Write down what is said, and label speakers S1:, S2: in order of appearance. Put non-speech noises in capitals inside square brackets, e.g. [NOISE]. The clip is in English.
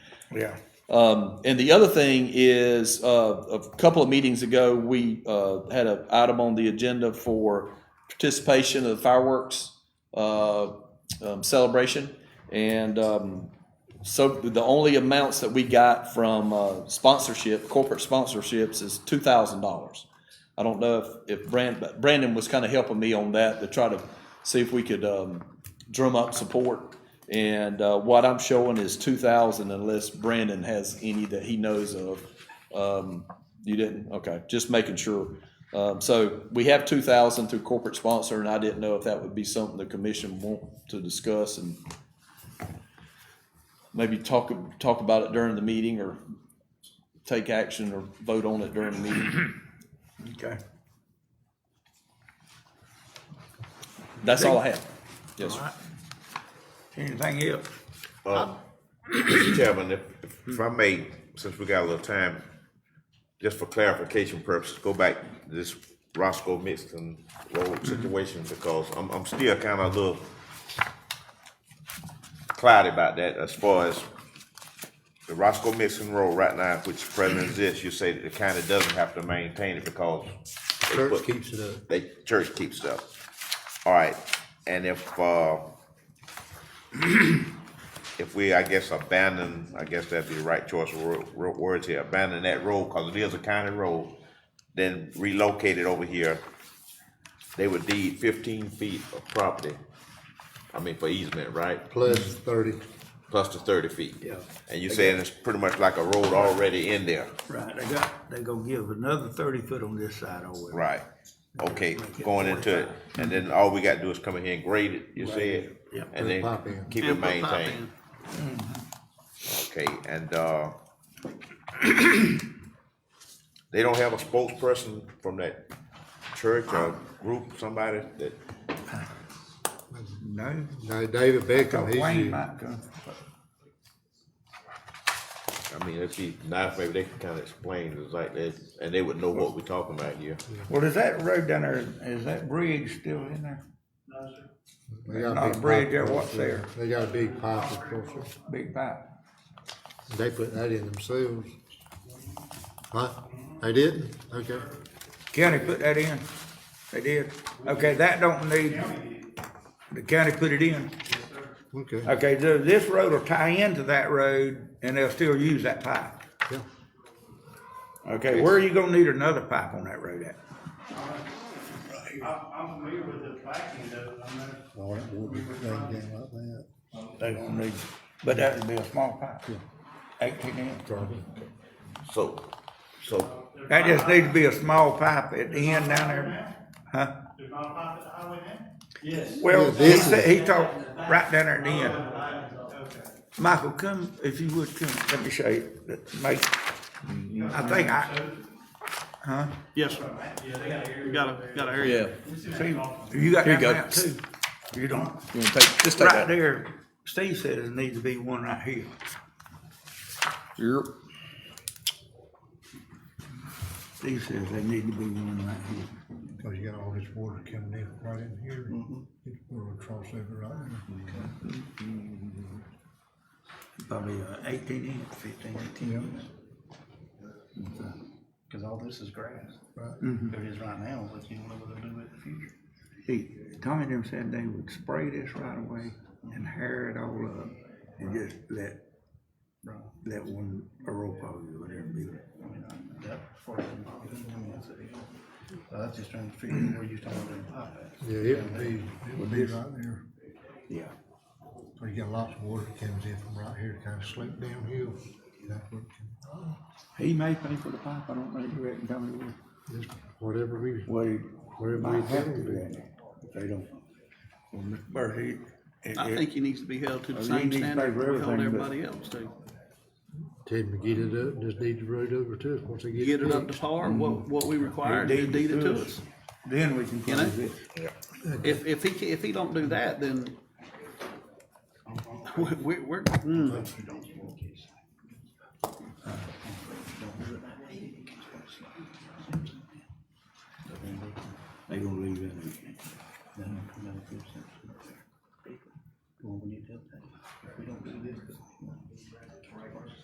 S1: Yeah.
S2: Um, and the other thing is, uh, a couple of meetings ago, we, uh, had an item on the agenda for participation of the fireworks, uh, um, celebration. And, um, so the only amounts that we got from, uh, sponsorship, corporate sponsorships is two thousand dollars. I don't know if, if Brand, Brandon was kind of helping me on that to try to see if we could, um, drum up support. And uh, what I'm showing is two thousand unless Brandon has any that he knows of. Um, you didn't? Okay, just making sure. Um, so we have two thousand through corporate sponsor and I didn't know if that would be something the commission want to discuss and maybe talk, talk about it during the meeting or take action or vote on it during the meeting.
S1: Okay.
S2: That's all I have. Yes, sir.
S1: Anything else?
S3: Mr. Uh, Chairman, if, if I may, since we got a little time, just for clarification purposes, go back to this Roscoe Mixon Road situation because I'm, I'm still kind of a little cloudy about that as far as the Roscoe Mixon Road right now, which presently exists, you say that the county doesn't have to maintain it because they
S4: Church
S3: put-
S4: keeps it up.
S3: they, church keeps it up. All right, and if, uh, [CLEARS THROAT] if we, I guess, abandon, I guess that'd be the right choice of wor- wor- words here, abandon that road, cause it is a county road, then relocate it over here, they would deed fifteen feet of property, I mean, for easement, right?
S4: Plus thirty.
S3: Plus the thirty feet.
S4: Yeah.
S3: And you saying it's pretty much like a road already in there?
S1: Right, they got, they gonna give another thirty foot on this side over there.
S3: Right, okay, going into it, and then all we gotta do is come in here and grade it, you said?
S1: Yep.
S3: And
S4: Put a pipe in.
S3: then keep it
S5: And put pipe
S3: maintained.
S5: in.
S3: Okay, and, uh, [CLEARS THROAT] they don't have a spokesperson from that church or group, somebody that,
S1: No,
S4: Now, David Beckham, he's,
S1: Wayne
S4: the-
S1: might come.
S3: I mean, it'd be nice, maybe they can kinda explain, it's like that, and they would know what we're talking about here.
S1: Well, is that road down there, is that bridge still in there?
S4: they got
S1: Not a
S4: a big pipe.
S1: bridge there,
S4: across
S1: what's there?
S4: They got a big pipe across
S1: Big pipe.
S4: it. They put that in themselves. Huh? They didn't? Okay.
S1: County put that in? They did? Okay, that don't need, the county put it in.
S4: Okay.
S1: Okay, so this road will tie into that road and they'll still use that pipe.
S4: Yeah.
S1: Okay, where are you gonna need another pipe on that road at?
S6: I'm, I'm familiar with the backing though, I'm not.
S4: All that wood would hang down like that.
S1: They gonna need, but that would be a small pipe, eighteen inch.
S3: So, so,
S1: That just needs to be a small pipe at the end down there, huh?
S6: There's not a pipe at the highway now? Yes.
S1: Well,
S4: Yeah, this
S1: he said,
S4: is-
S1: he talked right down there at the
S6: Oh,
S1: end. Michael, come, if you would, come, let me show you, make, I think I,
S5: Yes, sir. We got a, got a area.
S2: Yeah,
S1: see, you got
S2: Here
S1: that
S2: you go.
S1: map too. You don't,
S2: you want to take, just take
S1: right
S2: that.
S1: there, Steve said there needs to be one right here.
S2: Yep.
S1: Steve says there need to be one right here.
S4: Cause you got all this water coming in right in here. It's water across over right there.
S1: Probably uh, eighteen inch, fifteen, eighteen inch.
S7: Cause all this is grass.
S4: Right.
S7: There is right now, but you don't know what they'll do in the future.
S1: See, Tommy them said they would spray this right away and hair it all up and just let, let one, a rope out or whatever be.
S7: I mean, I- that part of it, I mean, that's a- I was just trying to figure out where you talking about that pipe
S4: Yeah, it would be, it would be right there.
S1: Yeah.
S4: So you got lots of water that comes in from right here, kinda slip downhill. That's what it
S1: He may pay for the pipe, I don't know, you reckon Tommy will?
S4: can- just Whatever we,
S1: Well, he
S4: wherever we
S1: might have to
S4: have it.
S1: do that if they don't. Well, Mr. Murphy. it-
S5: I
S1: it-
S5: think he needs to be held to
S1: Oh,
S5: the
S1: he
S5: same
S1: needs to pay
S5: standard
S1: for
S5: we hold
S1: everything, but-
S5: everybody else to.
S4: Tell him to get it up, just need the road over to us once they get.
S5: Get it up
S4: fixed.
S5: to par,
S1: Mm-hmm.
S5: what, what we require,
S1: They
S5: they deed it to us.
S1: Then we can.
S5: You know?
S1: close it.
S5: If, if he, ca- if he don't do that, then we, we- we're, mm,
S1: They gonna leave that. in.
S7: then.